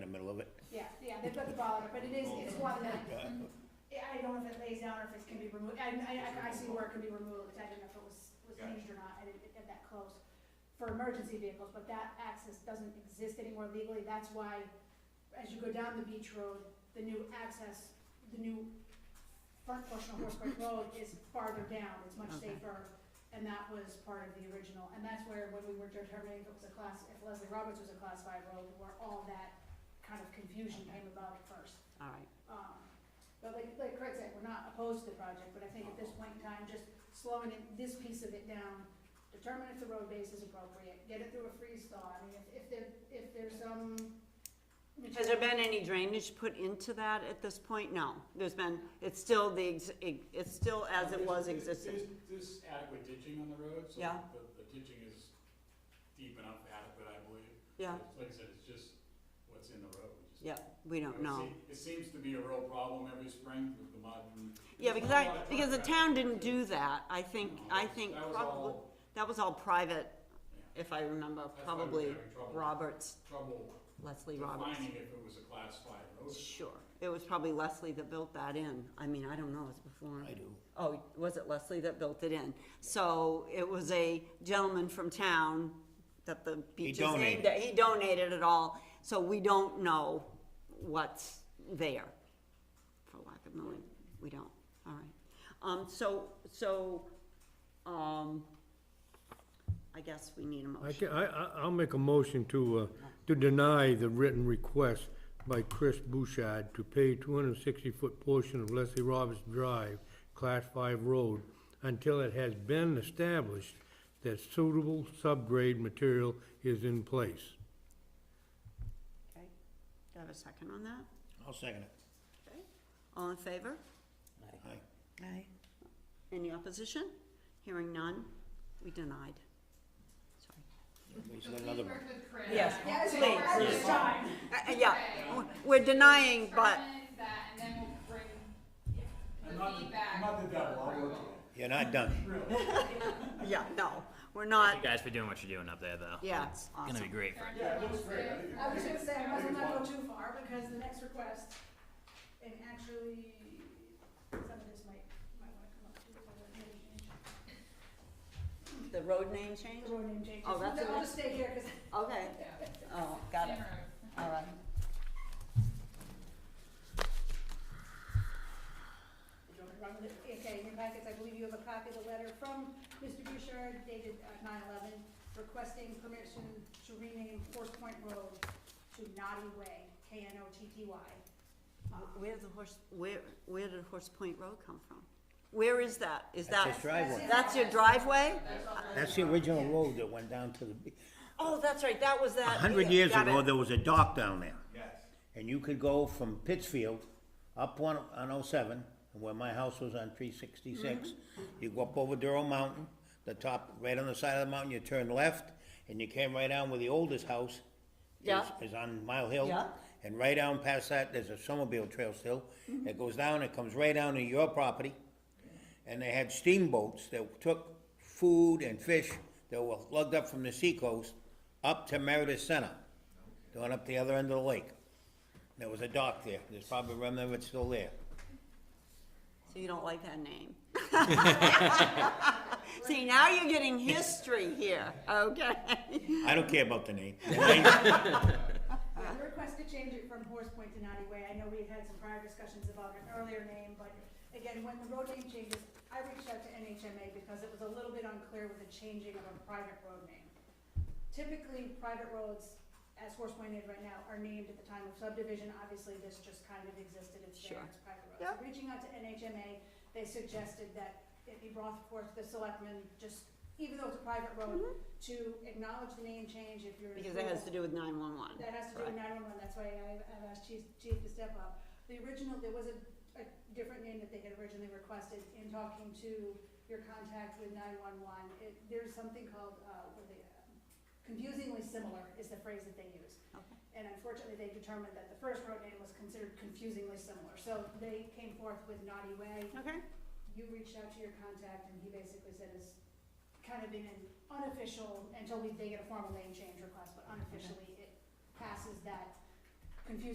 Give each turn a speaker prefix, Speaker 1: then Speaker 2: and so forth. Speaker 1: they've got the bottom, but it is, it's one that,
Speaker 2: Okay.
Speaker 1: Oh, I I don't know if it lays down or if it can be removed, I, I, I see where it can be removed, I didn't know if it was, was
Speaker 2: Gotcha.
Speaker 1: changed or not, I didn't get that close. For emergency vehicles, but that access doesn't exist anymore legally, that's why, as you go down the beach road, the new access, the new front portion of Horseback Road is farther down, it's much
Speaker 3: Okay.
Speaker 1: safer, and that was part of the original, and that's where, when we were determining if it was a class, if Leslie Roberts was a class five road, where all that kind of confusion came about at first.
Speaker 3: all right.
Speaker 1: Um, But like, like Craig said, we're not opposed to the project, but I think at this point in time, just slowing it, this piece of it down, determine if the road base is appropriate, get it through a freeze thaw, I mean, if, if there, if there's some.
Speaker 3: Has there been any drainage put into that at this point? No, there's been, it's still the, ex- it's still as it was
Speaker 4: There's-
Speaker 3: existing.
Speaker 4: There's there's adequate ditching on the road, so
Speaker 3: Yeah.
Speaker 4: the, the ditching is deep enough adequate, I believe.
Speaker 3: Yeah,
Speaker 4: It's- Like I said, it's just what's in the road. We just-
Speaker 3: yeah, we
Speaker 4: you
Speaker 3: don't
Speaker 4: it
Speaker 3: know.
Speaker 4: se- It seems to be a real problem every spring with the mud and.
Speaker 3: Yeah,
Speaker 4: there's
Speaker 3: because
Speaker 4: a
Speaker 3: I,
Speaker 4: lot of
Speaker 3: because the
Speaker 4: traffic.
Speaker 3: town didn't do that. I think,
Speaker 4: No,
Speaker 3: I
Speaker 4: that's-
Speaker 3: think
Speaker 4: that was
Speaker 3: probably,
Speaker 4: all-
Speaker 3: that was all private,
Speaker 4: yeah,
Speaker 3: if I remember,
Speaker 4: That's why we were
Speaker 3: probably
Speaker 4: having trouble.
Speaker 3: Roberts,
Speaker 4: Trouble
Speaker 3: Leslie Roberts.
Speaker 4: defining if it was a class five road.
Speaker 3: Sure, it was probably Leslie that built that in. I mean, I don't know, it's before.
Speaker 2: I do.
Speaker 3: Oh, was it Leslie that built it in? So it was a gentleman from town that the beach is named,
Speaker 2: donated.
Speaker 3: he donated it all, so we don't know what's there, for lack of knowing, we don't, all right. Um, so, so, um, I guess we need a
Speaker 5: I
Speaker 3: motion.
Speaker 5: can, I, I, I'll make a motion to, uh, to deny the written request by Chris Bouchard to pay two hundred and sixty-foot portion of Leslie Roberts Drive, Class Five Road, until it has been established that suitable subgrade material is in place.
Speaker 3: Okay. Do I have a second on that?
Speaker 2: I'll second it.
Speaker 3: Okay. All in favor?
Speaker 2: Aye.
Speaker 3: Aye. Any opposition? Hearing none, we denied. Sorry.
Speaker 2: Everybody's got another one.
Speaker 3: Yes,
Speaker 1: Yeah, it's
Speaker 3: please.
Speaker 1: at this time.
Speaker 3: Uh, uh, yeah, we're denying, but,
Speaker 6: Determine that, and then we'll bring
Speaker 4: I'm
Speaker 6: the
Speaker 4: not, the- I'm
Speaker 6: feedback.
Speaker 4: not the devil, I'll work it.
Speaker 2: You're not done.
Speaker 3: yeah, no, we're
Speaker 7: Thank
Speaker 3: not,
Speaker 7: you guys for doing what you're doing up there, though.
Speaker 3: yeah,
Speaker 7: It's gonna be
Speaker 3: awesome.
Speaker 7: great for
Speaker 4: Yeah, it looks great. I think it-
Speaker 1: I was gonna say, I must not go too far, because the next request, and actually, some of this might, might wanna come up too, if I don't name change.
Speaker 3: The road name change?
Speaker 1: The road name changes.
Speaker 3: Oh, that's a-
Speaker 1: I'll just stay here, 'cause
Speaker 3: Okay, oh, got it,
Speaker 6: Camera.
Speaker 3: all right.
Speaker 1: Do you want me to run with it? Okay, in your packets, I believe you have a copy of the letter from Mr. Bouchard dated uh, nine eleven, requesting permission to rename Horse Point Road to Naughty Way, K N O T T Y.
Speaker 3: Wh- Where the horse, where, where did Horse Point Road come from? Where is that? Is
Speaker 2: That's
Speaker 3: that,
Speaker 2: his driveway.
Speaker 3: that's your driveway?
Speaker 2: That's the original road that went down to the, be-
Speaker 3: Oh, that's right, that was
Speaker 2: a
Speaker 3: that.
Speaker 2: hundred years
Speaker 3: Got it.
Speaker 2: ago, there was a dock down there.
Speaker 4: Yes.
Speaker 2: And you could go from Pittsfield up one, on oh seven, where my house was on three sixty-six. You go up over Durrell Mountain, the top, right on the side of the mountain, you turn left, and you came right down where the oldest house is-
Speaker 3: Yeah.
Speaker 2: is on Mile Hill.
Speaker 3: Yeah.
Speaker 2: And right down past that, there's a snowmobile trail still. It goes down, it comes right down to your property. And they had steamboats that took food and fish that were lugged up from the seacoast up to Meredith Center, going up the other end of the lake. There was a dock there, there's probably a remnant of it still there.
Speaker 3: So you don't like that name? See, now you're getting history here, okay?
Speaker 2: I don't care about the name. The name-
Speaker 3: Uh,
Speaker 1: Yeah, the request to change it from Horse Point to Naughty Way, I know we had had some prior discussions about an earlier name, but again, when the road name changes, I reached out to NHMA because it was a little bit unclear with the changing of a private road name. Typically, private roads, as Horse Point is right now, are named at the time of subdivision, obviously this just kind of existed, it's there,
Speaker 3: Sure.
Speaker 1: it's private roads.
Speaker 3: Yep.
Speaker 1: Reaching out to NHMA, they suggested that it be brought forth to the selectmen, just, even though it's a private road,
Speaker 3: Mm-hmm.
Speaker 1: to acknowledge the name change if you're.
Speaker 3: Because it has to do with nine-one-one.
Speaker 1: That has to do with nine-one-one, that's why I, I've asked Chief, Chief to step up. The original, there was a, a different name that they had originally requested in talking to your contact with nine-one-one. It, there's something called, uh, what they, uh, confusingly similar is the phrase that they use.
Speaker 3: Okay.
Speaker 1: And unfortunately, they determined that the first road name was considered confusingly similar, so they came forth with Naughty Way
Speaker 3: Okay.
Speaker 1: you reached out to your contact and he basically said it's kind of been an unofficial, until we, they get a formal name change request, but unofficially, it passes that confusion